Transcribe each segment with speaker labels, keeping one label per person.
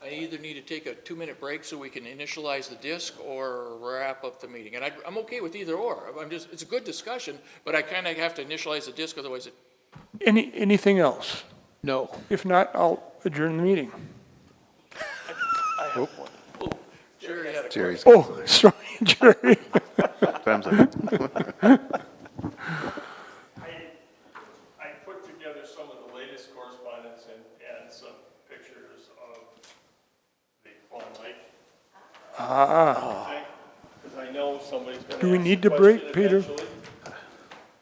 Speaker 1: they either need to take a two-minute break so we can initialize the disc or wrap up the meeting. And I, I'm okay with either or. I'm just, it's a good discussion, but I kind of have to initialize the disc, otherwise it.
Speaker 2: Any, anything else?
Speaker 1: No.
Speaker 2: If not, I'll adjourn the meeting.
Speaker 1: Sure, yeah.
Speaker 3: Jerry's
Speaker 2: Oh, sorry, Jerry.
Speaker 3: time's up.
Speaker 4: I, I put together some of the latest correspondence and, and some pictures of the Fawn Lake
Speaker 2: Ah,
Speaker 4: thing, because I know somebody's gonna ask
Speaker 2: Do we need
Speaker 4: the
Speaker 2: to break,
Speaker 4: question
Speaker 2: Peter?
Speaker 4: eventually.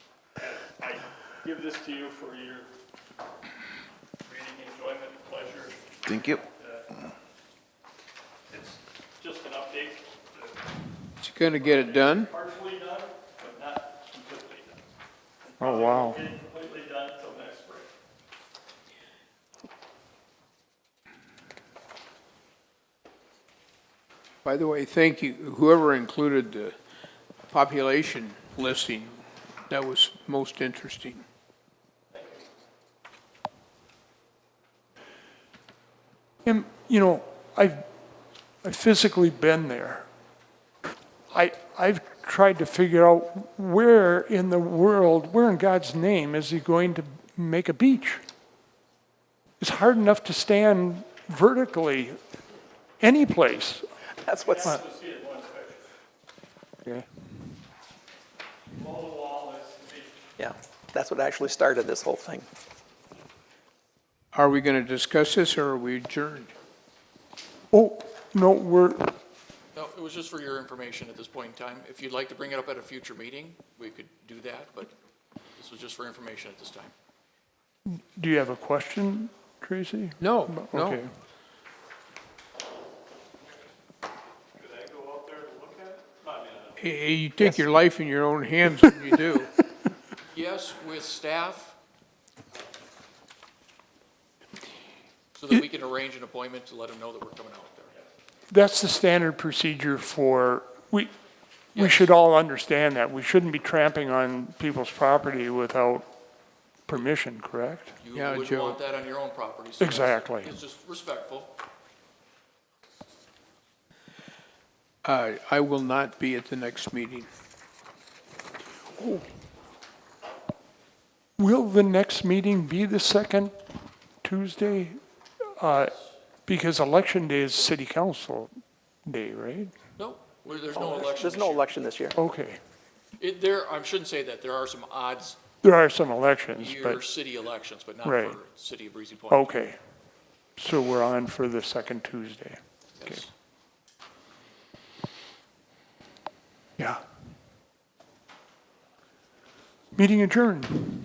Speaker 4: And I give this to you for your reading enjoyment, pleasure.
Speaker 3: Thank you.
Speaker 4: It's just an update, uh,
Speaker 5: She's gonna get it done.
Speaker 4: partially done, but not completely done.
Speaker 2: oh, wow.
Speaker 4: Getting completely done until next spring.
Speaker 5: By the way, thank you, whoever included the population listing, that was most interesting.
Speaker 2: And, you know, I've, I've physically been there. I, I've tried to figure out where in the world, where in God's name is he going to make a beach? It's hard enough to stand vertically any place.
Speaker 6: That's what's,
Speaker 2: Okay.
Speaker 4: Wall to wall is the beach.
Speaker 6: yeah, that's what actually started this whole thing.
Speaker 5: Are we gonna discuss this or are we adjourned?
Speaker 2: Oh, no, we're,
Speaker 1: No, it was just for your information at this point in time. If you'd like to bring it up at a future meeting, we could do that, but this was just for information at this time.
Speaker 2: do you have a question, Tracy?
Speaker 5: No,
Speaker 2: Okay.
Speaker 5: no.
Speaker 4: Could I go out there and look at it? I mean, I-
Speaker 5: Hey, you take your life in your own hands when you do.
Speaker 1: Yes, with staff. So that we can arrange an appointment to let them know that we're coming out there.
Speaker 2: That's the standard procedure for, we, we should all understand that. We shouldn't be tramping on people's property without permission, correct?
Speaker 1: You
Speaker 5: Yeah,
Speaker 1: wouldn't
Speaker 5: Joe.
Speaker 1: want that on your own property. so that's-
Speaker 2: Exactly.
Speaker 1: It's just respectful.
Speaker 5: Uh, I will not be at the next meeting.
Speaker 2: Will the next meeting be the second Tuesday? Uh, Because election day is city council day, right?
Speaker 1: No, well, there's no election
Speaker 6: There's
Speaker 1: this
Speaker 6: no
Speaker 1: year.
Speaker 6: election this year.
Speaker 2: Okay.
Speaker 1: It, there, I shouldn't say that. There are some odds
Speaker 2: There are some elections,
Speaker 1: year
Speaker 2: but,
Speaker 1: city elections, but not
Speaker 2: Right.
Speaker 1: for city of Breezy Point.
Speaker 2: okay. So we're on for the second Tuesday.
Speaker 1: Yes.
Speaker 2: Yeah. Meeting adjourned.